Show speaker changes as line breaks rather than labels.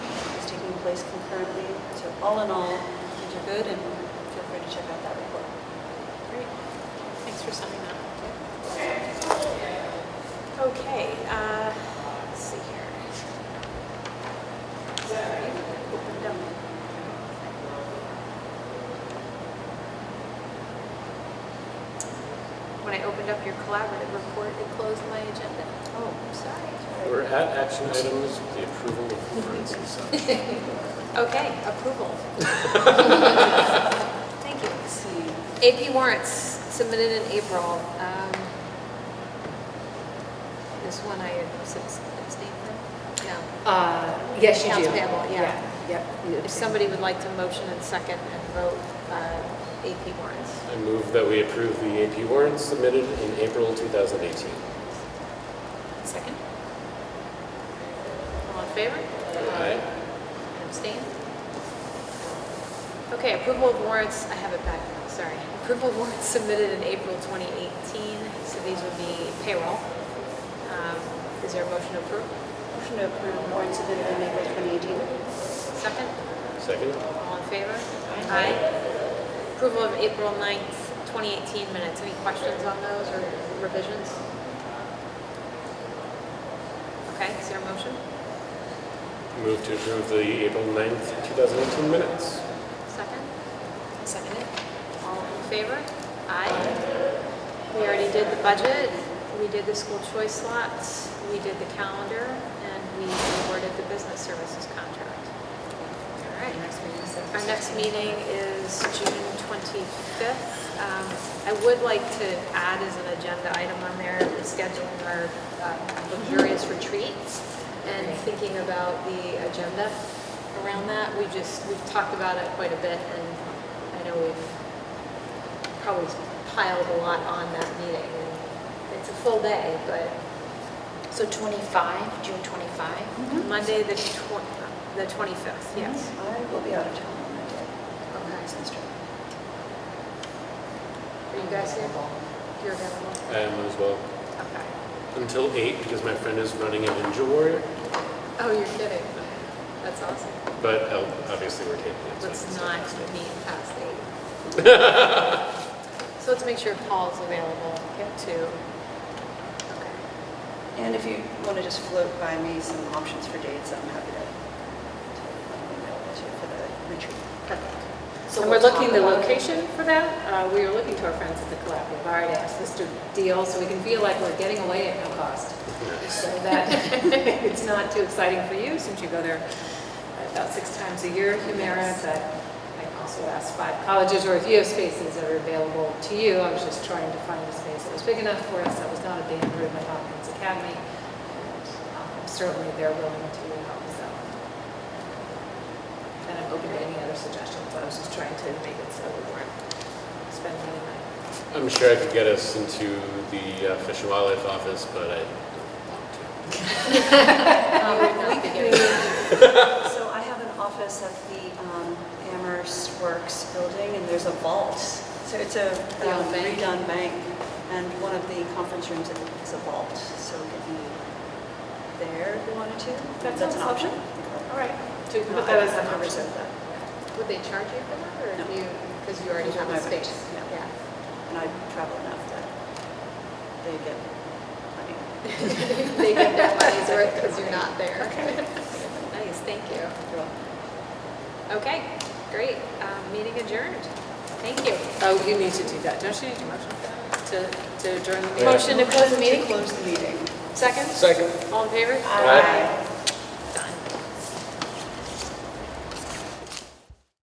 place concurrently. So all in all, things are good, and feel free to check out that report.
Great. Thanks for summing that. Okay, uh, let's see here. Sorry, opened up. When I opened up your collaborative report, it closed my agenda. Oh, sorry.
We're at action items, the approval of warrants and such.
Okay, approval. Thank you.
See,
AP warrants submitted in April. Um, This one I abstained from? No.
Uh, Yes, you do.
Accounts payable, yeah.
Yep. you
If
abstain.
somebody would like to motion and second and vote uh, AP warrants.
I move that we approve the AP warrants submitted in April 2018.
Second. All in favor?
Aye.
And abstain? Okay, approval of warrants, I have it back now, sorry. Approval of warrants submitted in April 2018, so these would be payroll. Um, Is there a motion to approve?
Motion to approve warrants submitted in April 2018.
Second?
Second?
All in favor? Aye. Approval of April 9th, 2018 minutes. Any questions on those or revisions? Okay, is there a motion?
Move to approve the April 9th, 2018 minutes.
Second? Second it. All in favor? Aye. We already did the budget, we did the school choice slots, we did the calendar, and we awarded the business services contract. All right. Our next meeting is June 25th. Um, I would like to add as an agenda item on there, scheduling our uh, luxurious retreat and thinking about the agenda around that. We just, we've talked about it quite a bit, and I know we've probably piled a lot on that meeting. and It's a full day, but
So 25, June 25?
Monday, the tw- the 25th, yes.
I will be out of town on that day.
Okay.
Nice and strong.
Are you guys here? You're available?
I am as well.
Okay.
Until 8, because my friend is running a Ninja Warrior,
Oh, you're kidding. That's awesome.
but uh, obviously we're taping it. so
Let's
it's
not meet past eight. So let's make sure Paul's available too. Okay.
And if you want to just float by me some options for dates, I'm happy to to let you know what to for the retreat.
So
And we're
we'll
looking
talk
the
about-
location for that. Uh, We are looking to our friends at the Collaborative. I already asked this to deal, so we can feel like we're getting away at no cost. So that, it's not too exciting for you, since you go there about six times a year, Humira, but I also asked five colleges, or if you have spaces that are available to you. I was just trying to find a space that was big enough for us, that was not a band room at Hopkins Academy. And, um, Certainly, they're willing to help us out. And I'm open to any other suggestions, I was just trying to make it so we weren't spending any money.
I'm sure I could get us into the uh, Fish and Wildlife office, but I don't
Um,
We
not
could-
beginning.
So I have an office at the um, Amherst Works building, and there's a vault. So it's a
The old
um,
bank.
redone bank, and one of the conference rooms is a vault, so it could be there if you wanted to.
That
That's an
sounds
option.
All right. So we can
No,
put that
I-
as
I'm
an
gonna
option.
reserve that.
Would they charge you for that or
No.
do you, because you already
These are
have
my
a
rates,
space?
yeah.
Yeah.
And I travel enough that they get plenty.
They get their money's worth because you're not there. Nice, thank you. Okay, great. Um, Meeting adjourned. Thank you.
Oh, you need to do that, don't you need to motion for that? to, to adjourn the meeting?
Yeah.
Motion to close the meeting?
Close the meeting.
Second?
Second.
All in favor?
Aye.